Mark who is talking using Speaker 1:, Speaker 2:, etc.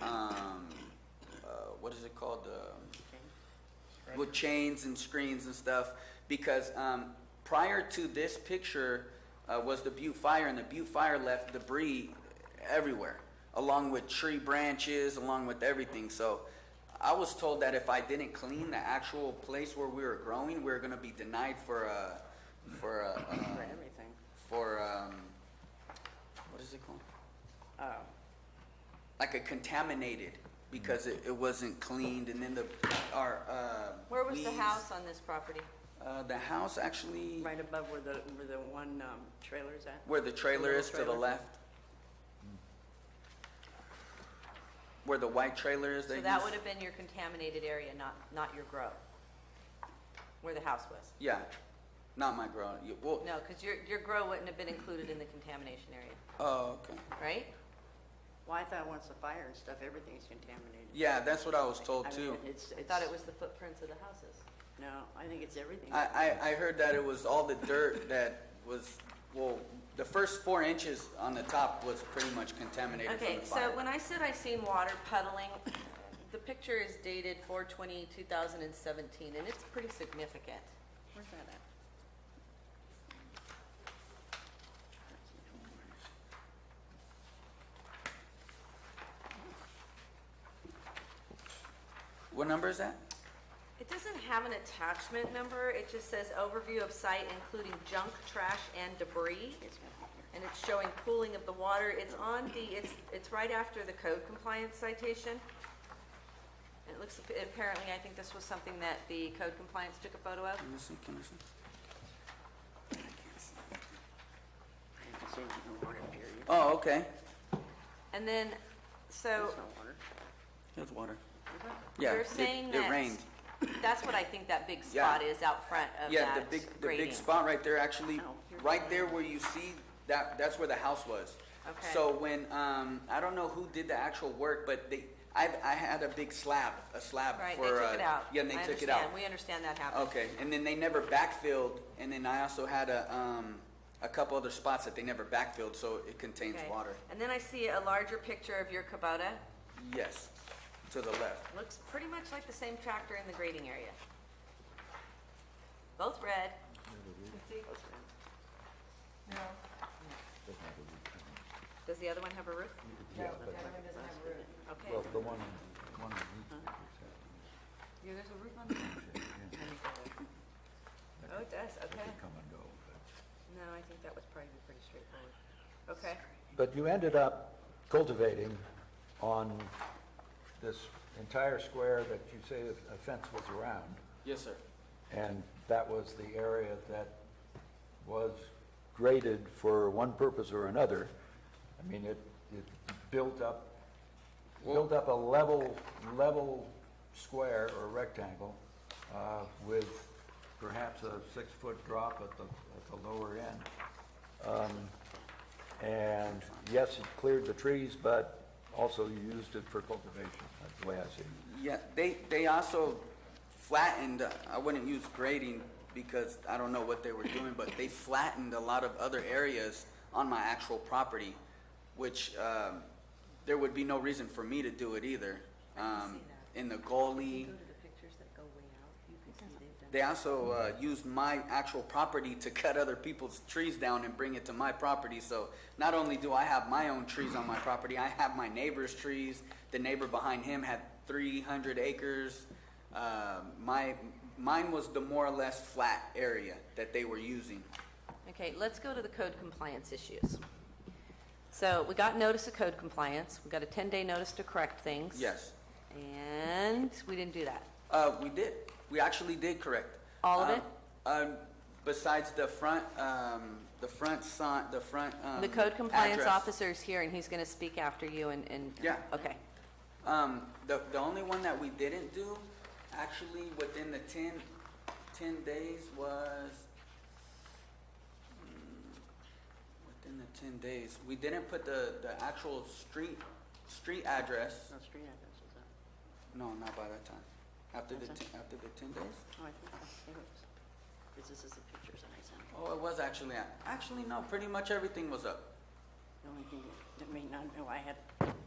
Speaker 1: uh, um, called? Um, with chains and screens and stuff, because um, prior to this picture uh, was the Butte Fire, and the Butte Fire left debris everywhere, along with tree branches, along with everything. So I was told that if I didn't clean the actual place where we were growing, we were going to be denied for a, for a, um,
Speaker 2: for everything.
Speaker 1: for um, what is it called?
Speaker 2: Oh,
Speaker 1: Like a contaminated because it, it wasn't cleaned, and then the our uh,
Speaker 3: Where was the
Speaker 1: weeds-
Speaker 3: house on this property?
Speaker 1: Uh, the house actually,
Speaker 2: right above where the, where the one um, trailer's at.
Speaker 1: where the trailer
Speaker 2: Little
Speaker 1: is to the
Speaker 2: trailer.
Speaker 1: left. Where the white trailer is.
Speaker 3: So
Speaker 1: they
Speaker 3: that
Speaker 1: use-
Speaker 3: would have been your contaminated area, not, not your grow, where the house was.
Speaker 1: Yeah, not my grow. You- Well,
Speaker 3: No, because your, your grow wouldn't have been included in the contamination area,
Speaker 1: oh, okay.
Speaker 3: right?
Speaker 2: Well, I thought once the fire and stuff, everything's contaminated.
Speaker 1: Yeah, that's what I was
Speaker 2: I
Speaker 1: told
Speaker 2: mean,
Speaker 1: too.
Speaker 2: It's,
Speaker 3: I
Speaker 2: it's,
Speaker 3: thought it was the footprints of the houses.
Speaker 2: no, I think it's everything.
Speaker 1: I, I, I heard that it was all the dirt that was, well, the first four inches on the top was pretty much contaminated from
Speaker 3: Okay,
Speaker 1: the
Speaker 3: so
Speaker 1: fire.
Speaker 3: when I said I seen water puddling, the picture is dated 420, 2017, and it's pretty significant.
Speaker 2: Where's that at?
Speaker 1: What number is that?
Speaker 3: It doesn't have an attachment number, it just says overview of site including junk, trash, and debris.
Speaker 2: It's not here.
Speaker 3: and it's showing cooling of the water. It's on the, it's, it's right after the code compliance citation. It looks, apparently, I think this was something that the code compliance took a photo of.
Speaker 1: Can you see, can you see?
Speaker 2: I haven't seen it in water period.
Speaker 1: Oh, okay.
Speaker 3: And then, so
Speaker 2: There's no water.
Speaker 1: There's water.
Speaker 2: Is that-
Speaker 1: Yeah,
Speaker 3: you're
Speaker 1: it-
Speaker 3: saying
Speaker 1: It rained.
Speaker 3: that, that's what I think that big spot
Speaker 1: Yeah.
Speaker 3: is out front of
Speaker 1: Yeah, the
Speaker 3: that
Speaker 1: big, the
Speaker 3: grading.
Speaker 1: big spot right there, actually,
Speaker 2: Oh, you're
Speaker 1: right
Speaker 2: right.
Speaker 1: there where you see, that, that's where the house was.
Speaker 3: Okay.
Speaker 1: So when, um, I don't know who did the actual work, but they, I, I had a big slab, a slab
Speaker 3: Right,
Speaker 1: for,
Speaker 3: they
Speaker 1: uh,
Speaker 3: took it out.
Speaker 1: Yeah, and they
Speaker 3: I
Speaker 1: took it
Speaker 3: understand.
Speaker 1: out.
Speaker 3: We understand that happened.
Speaker 1: Okay, and then they never backfilled, and then I also had a, um, a couple other spots that they never backfilled, so it contains
Speaker 3: Okay.
Speaker 1: water.
Speaker 3: And then I see a larger picture of your Kubota.
Speaker 1: Yes, to the left.
Speaker 3: Looks pretty much like the same tractor in the grading area. Both red. Does the other one have a roof?
Speaker 4: Yeah, but,
Speaker 3: Okay.
Speaker 4: well, the one, on- one on each picture,
Speaker 3: Yeah, there's a roof on there.
Speaker 4: yeah,
Speaker 3: Oh, it does,
Speaker 4: they
Speaker 3: okay.
Speaker 4: could come and go, but-
Speaker 3: No, I think that was probably pretty straightforward. Okay,
Speaker 4: But you ended up cultivating on this entire square that you say a fence was around,
Speaker 1: Yes, sir.
Speaker 4: and that was the area that was graded for one purpose or another. I mean, it, it built up, built up a level, level square or rectangle uh, with perhaps a six-foot drop at the, at the lower end. Um, And yes, it cleared the trees, but also you used it for cultivation, that's the way I see it.
Speaker 1: Yeah, they, they also flattened, I wouldn't use grading because I don't know what they were doing, but they flattened a lot of other areas on my actual property, which, um, there would be no reason for me to do it either. Um, in the goalie,
Speaker 3: go to the pictures that go way out, you can see they've done.
Speaker 1: they also, uh, used my actual property to cut other people's trees down and bring it to my property, so not only do I have my own trees on my property, I have my neighbor's trees, the neighbor behind him had three hundred acres. Um my, mine was the more or less flat area that they were using.
Speaker 3: Okay, let's go to the code compliance issues. So we got notice of code compliance, we got a ten-day notice to correct things.
Speaker 1: Yes,
Speaker 3: And we didn't do that.
Speaker 1: uh, we did, we actually did correct.
Speaker 3: All of
Speaker 1: Um,
Speaker 3: it?
Speaker 1: Um, besides the front, um, the front sign, the front, um.
Speaker 3: The code compliance
Speaker 1: address.
Speaker 3: officer is here and he's gonna speak after you and, and.
Speaker 1: Yeah.
Speaker 3: Okay.
Speaker 1: Um, the, the only one that we didn't do, actually, within the 10 10 days was, mm, within the ten days, we didn't put the, the actual street, street address,
Speaker 2: No street address, is that?
Speaker 1: no, not by that time, after the,
Speaker 2: Okay.
Speaker 1: 10 after the ten days?
Speaker 2: Oh, I think that's, it was. Because this is the pictures that I sent.
Speaker 1: Oh, it was actually, at- actually, no, pretty much everything was up.
Speaker 2: The only thing that may not know, I had